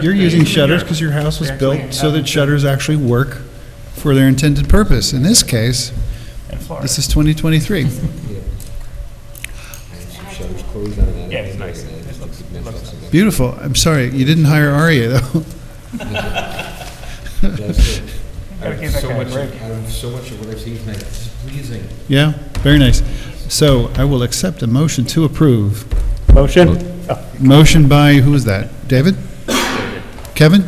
You're using shutters because your house was They actually built so that have- shutters actually work for their intended purpose. In this case, In Florida. this is 2023. Some shutters closed on that. Yeah, it's nice. and It looks- it's looks something. Beautiful. I'm sorry, you didn't hire Aria, though. That's it. Gotta give that So guy a much, break. out of um, so much of what I've seen tonight, it's pleasing. Yeah, very nice. So I will accept a motion to approve. Motion? Motion by, who was that? David? Kevin?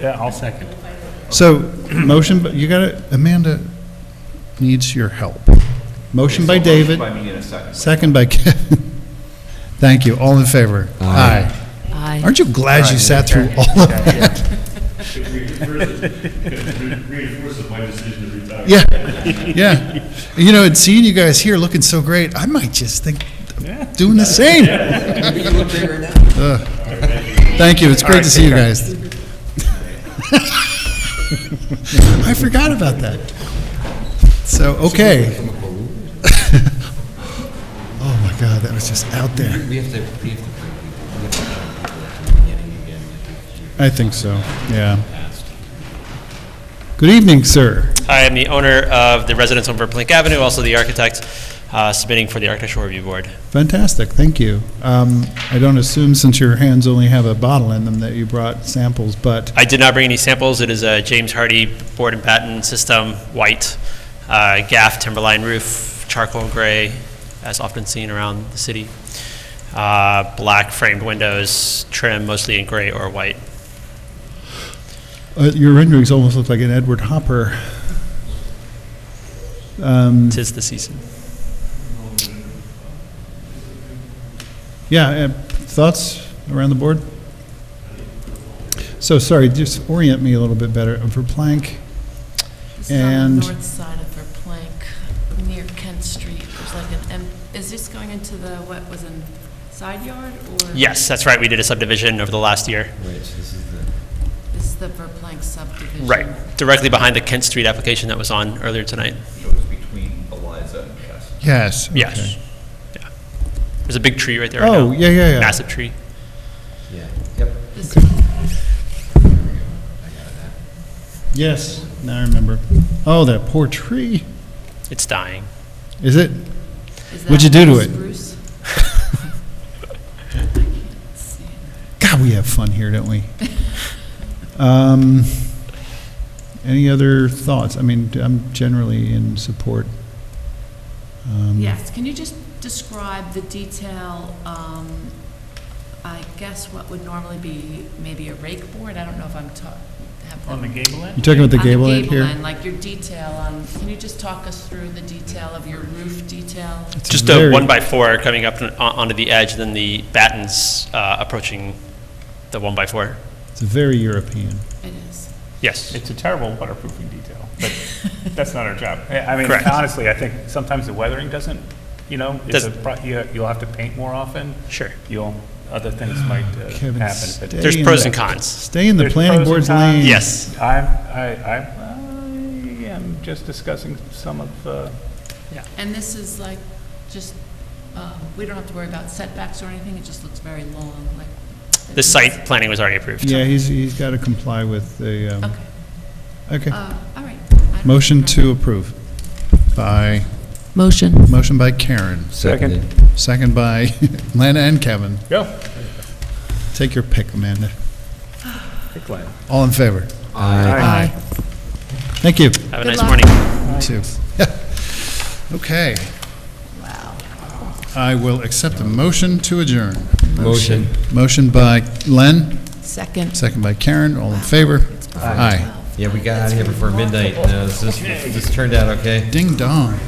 Yeah, I'll second. So, motion, but you gotta, Amanda needs your help. Motion by David. second. by Kevin. Thank you. All in favor? Aye. Aye. Aren't you glad you sat through all of that? reinforces my decision to retire. Yeah, yeah. You know, and seeing you guys here looking so great, I might just think, of doing the same. Ugh. Thank you, it's great to see you guys. I forgot about that. So, okay. Oh my God, that was just out there. We have to, we have to bring people, we have to bring people at the beginning again. I think so, yeah. Good evening, sir. Hi, I'm the owner of the residence on Verplank Avenue, also the architect uh, submitting for the Architectural Review Board. Fantastic, thank you. Um, I don't assume, since your hands only have a bottle in them, that you brought samples, but I did not bring any samples. It is a James Hardy board and batten system, white, uh, gaff timberline roof, charcoal gray, as often seen around the city. Uh, Black framed windows, trim mostly in gray or white. uh, your renderings almost look like an Edward Hopper. Um, Tis the season. yeah, uh, thoughts around the board? So, sorry, just orient me a little bit better. For Plank, This is on And- the north side of Verplank, near Kent Street. There's like an, em- is this going into the, what was in side yard or? Yes, that's right. We did a subdivision over the last year. Right, so this is the, This is the Verplank subdivision. Right, directly behind the Kent Street application that was on earlier tonight. yes. Yes. okay. Yeah. There's a big tree right there. right Oh, now. yeah, yeah, yeah. Massive tree. yeah, yep. This is Yes, now I remember. Oh, that poor tree. It's dying. Is it? is What'd you that do to it? Spruce? God, we have fun here, don't we? um, any other thoughts? I mean, I'm generally in support. Um, Yes, can you just describe the detail, um, I guess what would normally be maybe a rake board? I don't know if I'm ta- have. On the gable You end? talking about the on gable end here? end, like your detail on, can you just talk us through the detail of your roof detail? It's Just very- a one by four coming up on- onto the edge, then the battens uh, approaching the one by four. It's very European. It is. Yes. It's a terrible waterproofing detail, but that's not our job. I I mean, Correct. honestly, I think sometimes the weathering doesn't, you know, it's a, Doesn't- pro- you- you'll have to paint more often. Sure. You'll, other things might uh, Kevin, happen. but- stay There's in pros the- and cons. Stay in the There's planning pros and board's cons. lane. Yes. I'm, I, I, I am just discussing some of uh, the, And this is like, just, um, we don't have to worry about setbacks or anything, it just looks very long, like. The site planning was already approved. Yeah, he's, he's got to comply with the, um, Okay, okay. uh, all right. I don't- Motion to approve by, Motion. motion by Karen, Second. Seconded. second by Lana and Kevin. go. Take your pick, Amanda. Hey, Glenn. All in favor? Aye. Aye. Thank you. Have a Good nice luck. morning. Me too. Okay. I will accept a motion to adjourn. Motion. Motion by Len, Second. second by Karen, all in favor? Aye. Yeah, we got out of here before midnight, no, this, this turned out okay. Ding dong.